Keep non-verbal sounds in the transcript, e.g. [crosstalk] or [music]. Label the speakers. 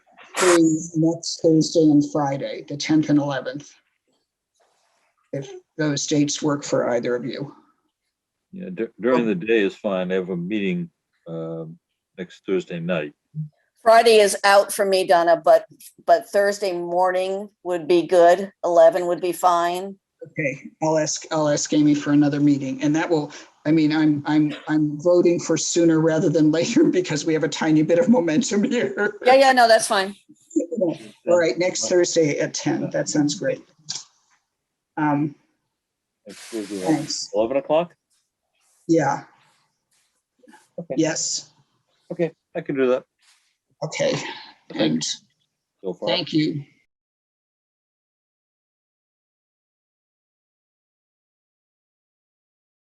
Speaker 1: free next Thursday and Friday, the 10th and 11th. If those dates work for either of you.
Speaker 2: Yeah, dur- during the day is fine. I have a meeting um, next Thursday night.
Speaker 3: Friday is out for me, Donna, but, but Thursday morning would be good. 11 would be fine.
Speaker 1: Okay, I'll ask, I'll ask Amy for another meeting and that will, I mean, I'm, I'm, I'm voting for sooner rather than later [laughs] because we have a tiny bit of momentum [laughs] here.
Speaker 3: Yeah, yeah, no, that's fine.
Speaker 1: All right, next Thursday at 10. That sounds great. Um,
Speaker 2: Next Thursday at
Speaker 1: thanks.
Speaker 2: Eleven o'clock?
Speaker 1: Yeah.
Speaker 2: Okay.
Speaker 1: Yes,
Speaker 2: Okay, I can do that
Speaker 1: okay. And
Speaker 2: so far.
Speaker 1: thank you.